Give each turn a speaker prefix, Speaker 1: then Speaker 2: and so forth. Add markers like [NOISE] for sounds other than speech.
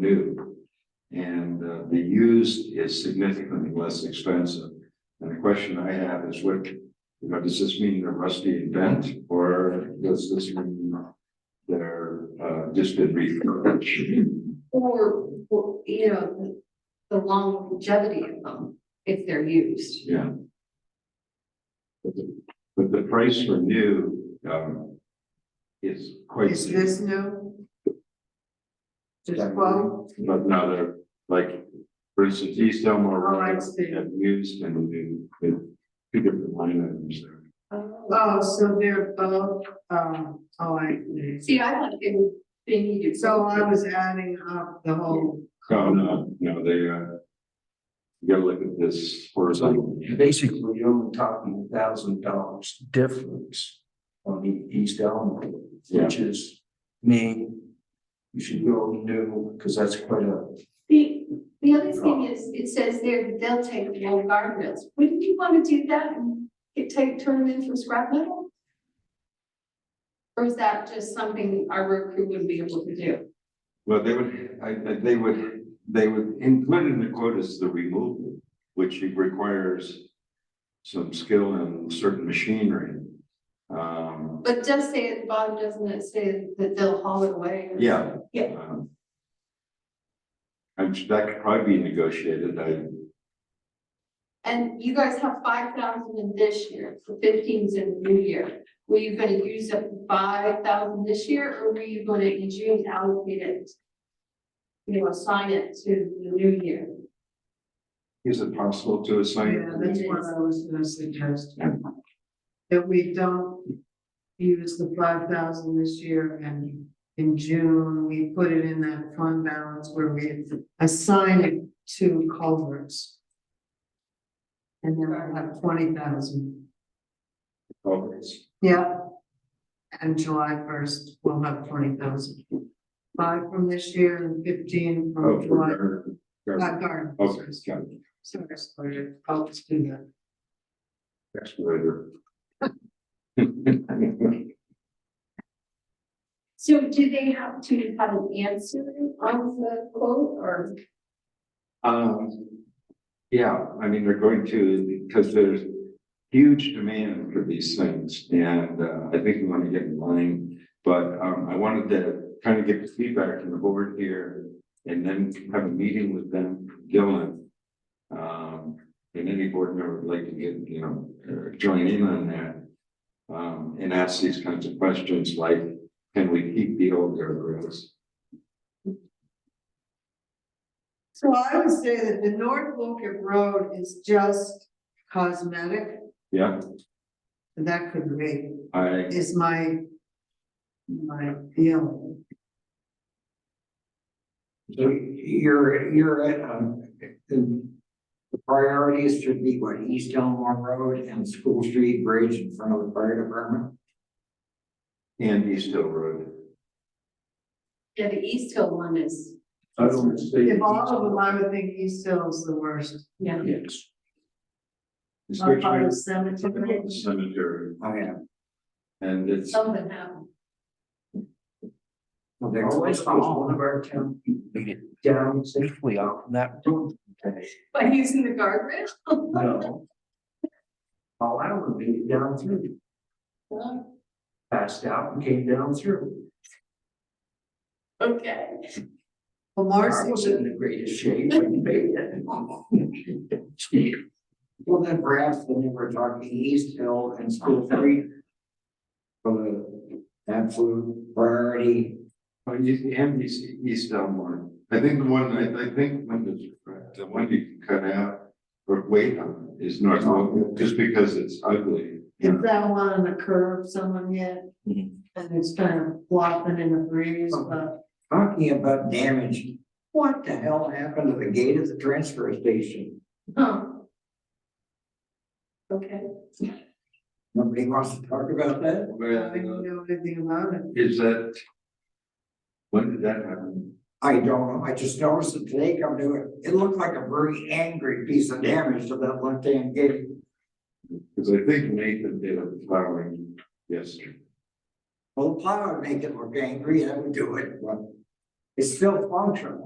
Speaker 1: new. And uh, the used is significantly less expensive. And the question I have is what, you know, does this mean they're rusty and bent or does this mean they're uh, just been refurbished?
Speaker 2: Or, or, you know, the longevity of them, if they're used.
Speaker 1: Yeah. But the, but the price for new, um, is quite.
Speaker 3: Is this new? Just
Speaker 1: Yeah.
Speaker 3: quote,
Speaker 1: But now they're like, for instance, East Elmore
Speaker 3: All right,
Speaker 1: Road,
Speaker 3: Steve.
Speaker 1: have used and new, two different line items there.
Speaker 3: oh, so they're both, um, oh, I,
Speaker 2: See, I like it being used.
Speaker 3: so I was adding up the whole.
Speaker 1: Oh, no, no, they, uh. You gotta look at this horizontal.
Speaker 4: Basically, you're only talking a thousand dollars difference on the East Elm, Road, which is me. You should go new, because that's quite a,
Speaker 2: The, the other thing is, it says there, they'll take old guardrails. Wouldn't you want to do that and get, take, turn them in for scrap metal? Or is that just something our road crew wouldn't be able to do?
Speaker 1: Well, they would, I, I- they would, they would include in the quote is the removal, which requires. Some skill and certain machinery. Um,
Speaker 2: But it does say at the bottom, doesn't it say that they'll haul it away? or-
Speaker 1: yeah.
Speaker 2: Yeah.
Speaker 1: um, And that could probably be negotiated, I,
Speaker 2: And you guys have five thousand in this year, so fifteen's in the new year. Were you gonna use up five thousand this year, or were you gonna in June allocate it? You know, assign it to the new year?
Speaker 1: is it possible to assign?
Speaker 3: Yeah, that's what I was gonna suggest. That we don't use the five thousand this year and in June, we put it in that fund balance where we assign it to culverts. And then we'll have twenty thousand,
Speaker 1: culverts?
Speaker 3: yeah. And July first, we'll have twenty thousand. Five from this year and fifteen
Speaker 1: Oh,
Speaker 3: from July,
Speaker 1: for-
Speaker 3: not garden.
Speaker 1: Okay, got it.
Speaker 3: Sorry, sorry, I'll just do that.
Speaker 1: excavator. [LAUGHS]
Speaker 2: So do they have to have an answer on the quote, or?
Speaker 1: Um, yeah, I mean, they're going to, because there's huge demand for these things, and uh, I think we want to get in line. But um, I wanted to kind of get the feedback from the board here, and then have a meeting with them, Dylan. Um, and any board member would like to get, you know, or join in on that. Um, and ask these kinds of questions like, can we keep the old guardrails?
Speaker 3: So I would say that the North Woken Road is just cosmetic,
Speaker 1: Yeah,
Speaker 3: and that could be,
Speaker 1: I,
Speaker 3: is my. My feeling,
Speaker 4: so you're, you're at, um, the the priorities should be what, East Elmore Road and School Street Bridge in front of the fire department?
Speaker 1: and East Hill Road.
Speaker 2: Yeah, the East Hill one is,
Speaker 4: I don't see.
Speaker 3: if all of them, I would think East Hill's the worst,
Speaker 2: yeah.
Speaker 4: Yes.
Speaker 3: not
Speaker 1: Especially
Speaker 3: part of cemetery.
Speaker 1: about the cemetery,
Speaker 4: I am.
Speaker 1: and it's,
Speaker 2: Something happened.
Speaker 4: Well, There's always one of our town. Down safely off that road.
Speaker 2: By using the guardrail?
Speaker 4: No. Oh, I would be down through, passed out and came down through.
Speaker 2: [LAUGHS] Okay.
Speaker 3: Well,
Speaker 4: I was in
Speaker 3: Marcy,
Speaker 4: the greatest shape when you made it. Well, then perhaps when we were talking East Hill and School Street. For the absolute priority.
Speaker 1: oh, you- and East, East Elmore. I think the one, I, I think when the, the one you can cut out or wait on is North Oak, just because it's ugly.
Speaker 3: is that one on the curb, someone yet?
Speaker 4: Mhm.
Speaker 3: And it's kind of flopping in the breeze,
Speaker 4: Oh,
Speaker 3: but
Speaker 4: Talking about damage, what the hell happened to the gate at the transfer station?
Speaker 2: Huh. Okay.
Speaker 4: Nobody wants to talk about that?
Speaker 3: I don't
Speaker 1: Well,
Speaker 3: know anything about it.
Speaker 1: is that? When did that happen?
Speaker 4: I don't know, I just noticed it today come to it, it looked like a very angry piece of damage to that left-hand gate.
Speaker 1: Because I think Nathan did a flowering yesterday.
Speaker 4: Well, the plow would make it look angry, that would do it, but it's still functional.